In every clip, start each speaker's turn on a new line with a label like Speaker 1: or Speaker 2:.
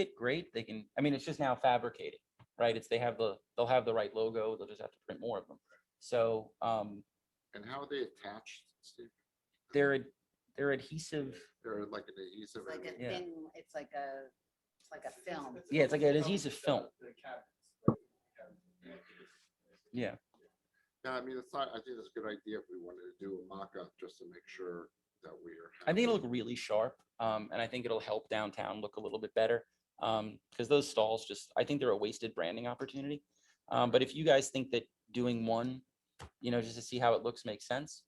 Speaker 1: it, great, they can, I mean, it's just now fabricated, right? It's, they have the, they'll have the right logo, they'll just have to print more of them. So, um,
Speaker 2: And how are they attached, Steve?
Speaker 1: they're, ad- they're adhesive,
Speaker 2: They're like an adhesive.
Speaker 3: It's like a
Speaker 1: Yeah.
Speaker 3: thin, it's like a, it's like a film.
Speaker 1: Yeah, it's like an adhesive film. yeah.
Speaker 2: Yeah, I mean, it's not, I think it's a good idea if we wanted to do a mock-up just to make sure that we are.
Speaker 1: I think it'll
Speaker 2: happy.
Speaker 1: look really sharp, um, and I think it'll help downtown look a little bit better. Um, because those stalls just, I think they're a wasted branding opportunity. Um, but if you guys think that doing one, you know, just to see how it looks makes sense.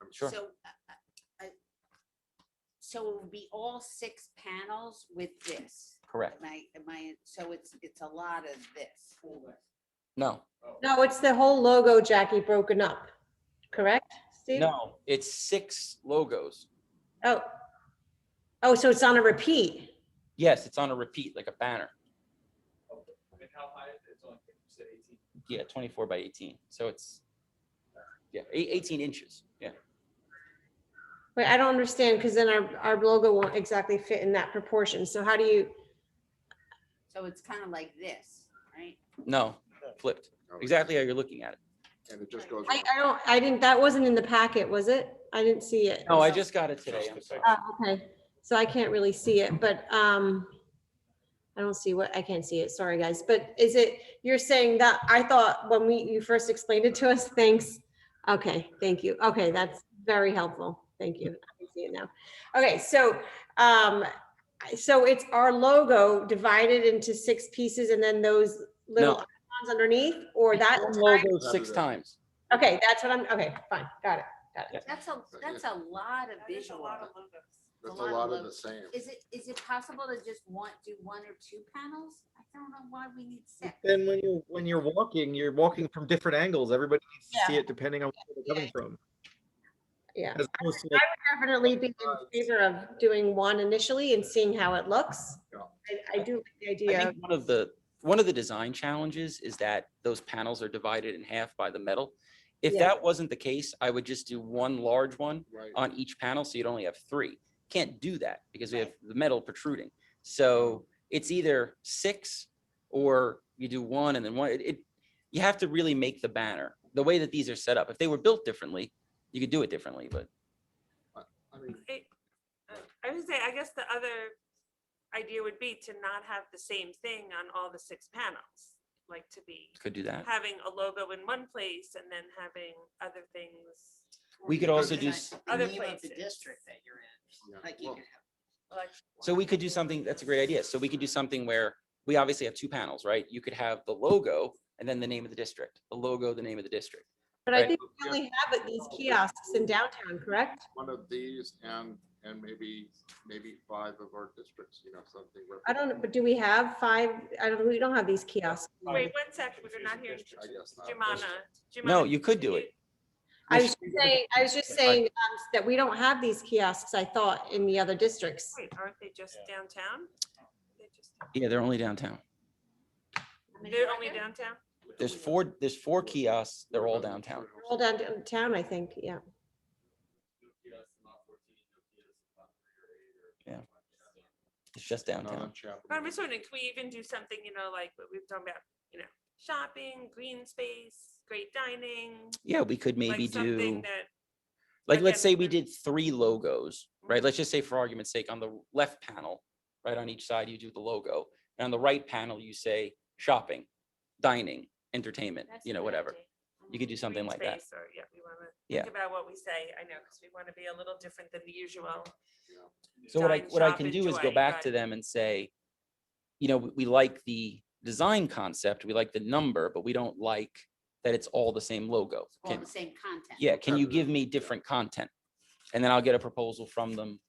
Speaker 2: I'm
Speaker 1: Sure.
Speaker 3: So, uh, uh, uh, so it would be all six panels with this. Am
Speaker 1: Correct.
Speaker 3: I, am I, so it's, it's a lot of this.
Speaker 1: No,
Speaker 4: No, it's the whole logo, Jackie, broken up, correct, Steve?
Speaker 1: no, it's six logos.
Speaker 4: Oh. Oh, so it's on a repeat.
Speaker 1: Yes, it's on a repeat, like a banner.
Speaker 5: And how high is it? It's only, you said eighteen.
Speaker 1: Yeah, twenty-four by eighteen. So it's, yeah, eight- eighteen inches. Yeah.
Speaker 4: Wait, I don't understand, because then our, our logo won't exactly fit in that proportion. So how do you,
Speaker 3: So it's kind of like this, right?
Speaker 1: No, flipped.
Speaker 2: Okay.
Speaker 1: Exactly how you're looking at it.
Speaker 2: And it just goes.
Speaker 4: I, I don't, I didn't, that wasn't in the packet, was it? I didn't see it.
Speaker 1: No, I just got it today. I'm sorry.
Speaker 4: Oh, okay, so I can't really see it, but, um, I don't see what, I can't see it, sorry, guys, but is it, you're saying that, I thought when we, you first explained it to us, thanks. Okay, thank you, okay, that's very helpful, thank you, I can see it now. Okay, so, um, I- so it's our logo divided into six pieces and then those little
Speaker 1: No.
Speaker 4: icons underneath, or that,
Speaker 1: One logo Six
Speaker 2: Saturday.
Speaker 1: times.
Speaker 4: okay, that's what I'm, okay, fine, got it.
Speaker 3: That's a, that's a lot of visual.
Speaker 2: That's a lot of the
Speaker 3: logos.
Speaker 2: same.
Speaker 3: Is it, is it possible to just want, do one or two panels? I don't know why we need six.
Speaker 6: Then when you, when you're walking, you're walking from different angles. Everybody needs to see it depending on where they're coming from.
Speaker 4: Yeah.
Speaker 6: As opposed to like,
Speaker 4: definitely be in favor of doing one initially and seeing how it looks.
Speaker 2: Yeah.
Speaker 4: I, I do like the
Speaker 1: I
Speaker 4: idea. of-
Speaker 1: think one of the, one of the design challenges is that those panels are divided in half by the metal. If
Speaker 4: Yeah.
Speaker 1: that wasn't the case, I would just do one large one
Speaker 2: Right.
Speaker 1: on each panel, so you'd only have three. Can't do that because we have the metal protruding. So it's either six or you do one and then one. It, it- you have to really make the banner, the way that these are set up. If they were built differently, you could do it differently, but
Speaker 2: I mean,
Speaker 7: I I would say, I guess the other idea would be to not have the same thing on all the six panels. Like to be
Speaker 1: could do that.
Speaker 7: having a logo in one place and then having other things.
Speaker 1: We could also do s-
Speaker 7: Other
Speaker 8: The name of the
Speaker 7: places.
Speaker 8: district that you're in.
Speaker 2: Yeah,
Speaker 8: Like you
Speaker 2: well-
Speaker 8: can have.
Speaker 7: like-
Speaker 1: So we could do something, that's a great idea. So we could do something where we obviously have two panels, right? You could have the logo and then the name of the district, the logo, the name of the district.
Speaker 4: But I
Speaker 1: Right.
Speaker 4: think we only have it these kiosks in downtown, correct?
Speaker 2: one of these and, and maybe, maybe five of our districts, you know, something.
Speaker 4: I don't, know, but do we have five? I don't, we don't have these kiosks.
Speaker 7: Wait, one second, we're not hearing
Speaker 2: I guess not.
Speaker 7: Jumana.
Speaker 1: No,
Speaker 7: Jumana,
Speaker 1: you could
Speaker 7: can
Speaker 1: do it.
Speaker 4: I was just saying, I was just saying um, that we don't have these kiosks, I thought, in the other districts.
Speaker 7: Wait, aren't they just downtown? They just-
Speaker 1: Yeah, they're only downtown.
Speaker 3: How many
Speaker 7: They're
Speaker 3: are
Speaker 7: only
Speaker 3: there?
Speaker 7: downtown?
Speaker 1: There's four, there's four kiosks. They're
Speaker 2: Mm-hmm.
Speaker 1: all downtown.
Speaker 4: All downtown, I think, yeah.
Speaker 1: It's just
Speaker 2: Not
Speaker 1: downtown.
Speaker 2: on Chapel.
Speaker 7: But I'm just wondering, can we even do something, you know, like what we've talked about, you know, shopping, green space, great dining?
Speaker 1: Yeah, we could
Speaker 7: like
Speaker 1: maybe
Speaker 7: something
Speaker 1: do,
Speaker 7: that-
Speaker 1: like, let's
Speaker 7: again,
Speaker 1: say we
Speaker 7: we're- Mm-hmm.
Speaker 1: did three logos, right? Let's just say for argument's sake, on the left panel, right on each side, you do the logo. And on the right panel, you say shopping, dining, entertainment,
Speaker 7: That's
Speaker 1: you
Speaker 7: a
Speaker 1: know,
Speaker 7: good
Speaker 1: whatever.
Speaker 7: idea.
Speaker 1: You could do something
Speaker 7: green
Speaker 1: like that.
Speaker 7: space Or, yeah, we want to
Speaker 1: Yeah.
Speaker 7: think about what we say, I know, because we want to be a little different than the usual.
Speaker 1: So what I,
Speaker 7: dine,
Speaker 1: what I
Speaker 7: shop,
Speaker 1: can do is go
Speaker 7: enjoy,
Speaker 1: back to
Speaker 7: right.
Speaker 1: them and say, you know, we- we like the design concept, we like the number, but we don't like that it's all the same logo.
Speaker 3: It's All
Speaker 1: Can,
Speaker 3: the same content.
Speaker 1: yeah, can you
Speaker 2: Competitive,
Speaker 1: give me
Speaker 2: yeah.
Speaker 1: different content? And then I'll get a proposal from them.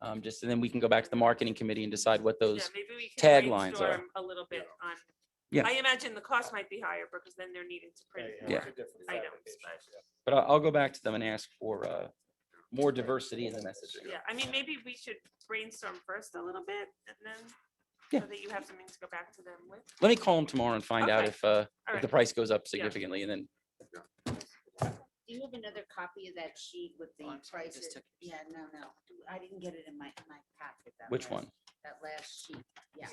Speaker 1: Um, just, and then we can go back to the marketing committee and decide what
Speaker 7: Yeah,
Speaker 1: those,
Speaker 7: maybe we can
Speaker 1: taglines are-
Speaker 7: brainstorm A little bit on.
Speaker 1: Yeah.
Speaker 7: I imagine the cost might be higher because then they're needing to print.
Speaker 1: Yeah.
Speaker 7: more. items, but-
Speaker 1: but I'll, I'll go back to them and ask for, uh, more diversity in the messaging.
Speaker 7: Yeah, I mean, maybe we should brainstorm first a little bit and then
Speaker 1: Yeah.
Speaker 7: so that you have something to go back to them with.
Speaker 1: Let me call them tomorrow and find out
Speaker 7: Okay.
Speaker 1: if, uh,
Speaker 7: All
Speaker 1: if the
Speaker 7: right,
Speaker 1: price goes up significantly and then
Speaker 3: Do you have another copy of that sheet with the
Speaker 8: Oh, I'm sorry, I just
Speaker 3: prices?
Speaker 8: took
Speaker 3: Yeah, no, no, I didn't get it in my, in my packet. that
Speaker 1: which one?
Speaker 3: was- that that last sheet, yeah.